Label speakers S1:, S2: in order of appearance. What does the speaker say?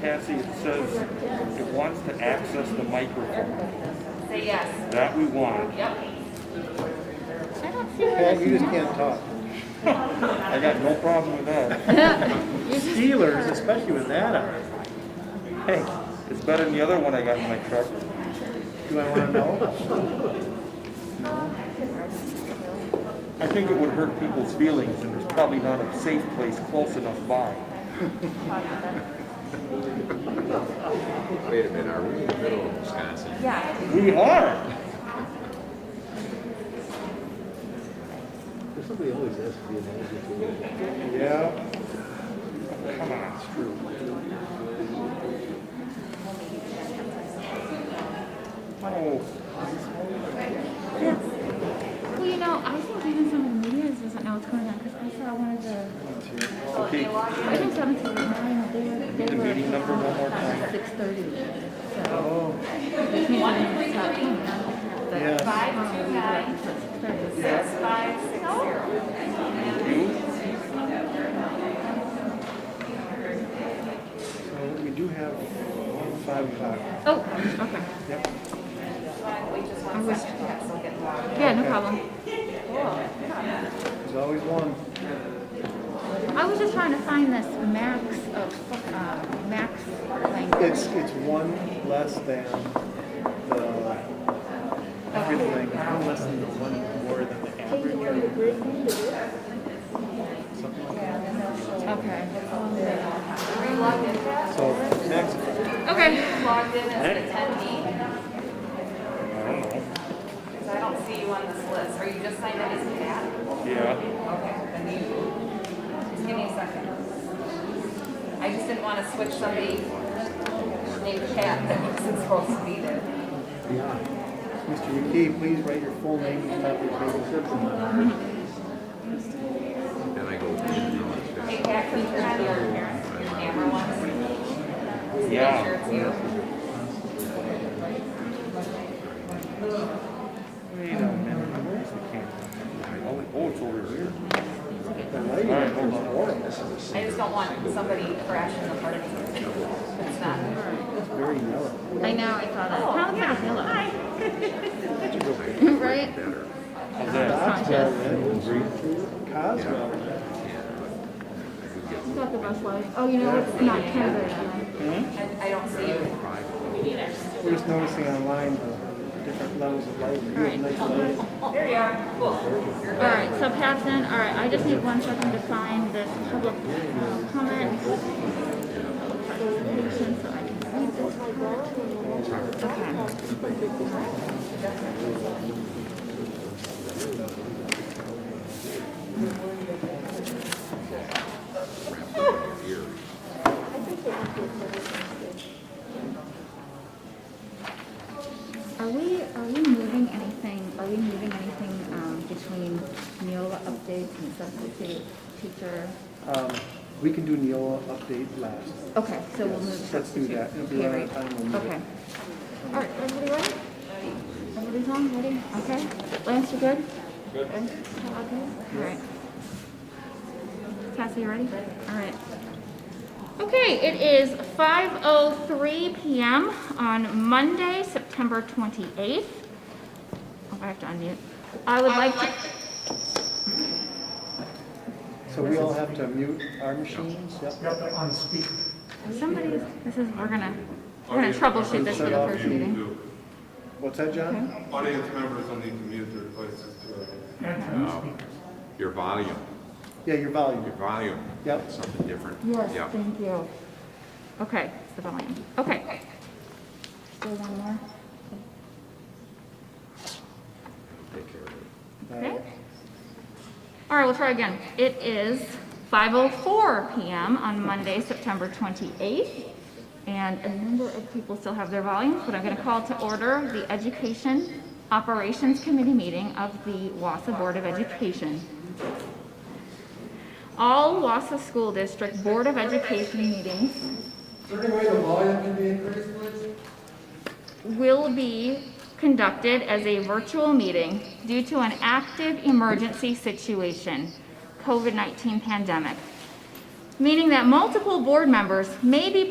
S1: Cassie, it says it wants to access the microphone.
S2: Say yes.
S1: That we wanted.
S2: Yep.
S3: I don't feel
S4: Pat, you just can't talk.
S1: I got no problem with that.
S4: Steelers, especially with that on.
S1: Hey, it's better than the other one I got in my truck.
S4: Do I wanna know?
S1: I think it would hurt people's feelings and there's probably not a safe place close enough by.
S5: Wait a minute, are we in the middle of Wisconsin?
S2: Yeah.
S1: We are.
S6: Somebody always has to be an advocate.
S4: Yeah.
S1: Come on, it's true. Oh,
S3: Well, you know, I think even some of the media doesn't know what's "Oh, going on because I saw one of the,
S1: okay.
S3: I think seven thirty nine, they were, they
S1: The
S3: were.
S1: meeting number one more time.
S3: Six thirty, so. They came in and stopped coming out. But,
S4: Yes.
S2: Five two nine
S3: um, six thirty.
S2: six five six zero.
S4: So we do have five o'clock.
S3: Oh, okay,
S4: Yep.
S2: Wait just one second. Yes, I'll get logged.
S3: yeah, no problem.
S4: There's always one.
S3: I was just trying to find this max of, uh, max language.
S4: It's, it's one less than the average language, one less than the one more than the average. Something like that.
S3: Okay,
S2: Are you logged in, Pat?
S4: So next,
S3: okay,
S2: Logged in as an attendee?
S1: I don't know.
S2: Because I don't see you on this list. Are you just signed in as Pat?
S1: Yeah.
S2: Okay, then you, just give me a second. I just didn't want to switch somebody named Pat that wasn't supposed to be there.
S4: Mr. McKee, please write your full name and copy of the description.
S5: Then I go. "Hey,
S2: Hey, Pat, can you turn on your, your camera once? Just Make sure
S1: Yeah.
S2: it's you.
S1: Wait a minute. Where's uh, the camera? Oh, it- Oh, it's over here.
S4: The lighting
S1: Alright, hold
S4: is
S1: on.
S4: horrible.
S2: I just don't want somebody crashing the party. It's not.
S4: It's very yellow.
S3: I know, I "Oh, saw that. Sounds like a pillow. Right?
S1: How's that?
S4: Cosmo. Cosmo.
S3: Got the bus light. Oh, you know, it's not Canada.
S2: I, I don't see you.
S4: We're just noticing online the different levels of light. You have nice lighting.
S2: There you are. Cool. You're
S3: All
S2: good.
S3: right, so Pat's in. All right, I just need one second to find this public uh, comment. presentation so I can read this comment. Okay. Are we, are we moving anything, are we moving anything um, between Neola updates and substitute teacher?
S4: Um, we can do Neola update last.
S3: Okay, so we'll move
S4: Yes, let's do
S3: substitute.
S4: that. It'll be around the time we'll move it.
S3: Okay. All right, everybody ready? Everybody's on, ready? Okay. Lance, you good? Good. All good? All right. Cassie, you ready? All right. Okay, it is 5:03 PM on Monday, September 28th. Oh, I have to unmute. I would like to,
S4: So we all have to mute our machines? Yep.
S3: somebody's, this is, we're gonna, we're gonna troubleshoot this for the first meeting.
S4: What's that, John?
S7: Audience members will need to mute their devices too.
S5: Your volume,
S4: Yeah, your
S5: your
S4: volume.
S5: volume.
S4: Yep.
S5: It's Something different.
S3: Yes,
S5: Yeah.
S3: thank you. Okay, it's the volume. Okay. Still one more?
S5: Take care of it.
S4: Uh,
S3: Okay. All right, we'll try again. It is 5:04 PM on Monday, September 28th, and a number of people still have their volumes, but I'm going to call to order the Education Operations Committee meeting of the Wassa Board of Education. All Wassa School District Board of Education meetings
S7: Is there any way the volume can be increased, please?
S3: will be conducted as a virtual meeting due to an active emergency situation, COVID-19 pandemic, meaning that multiple board members may be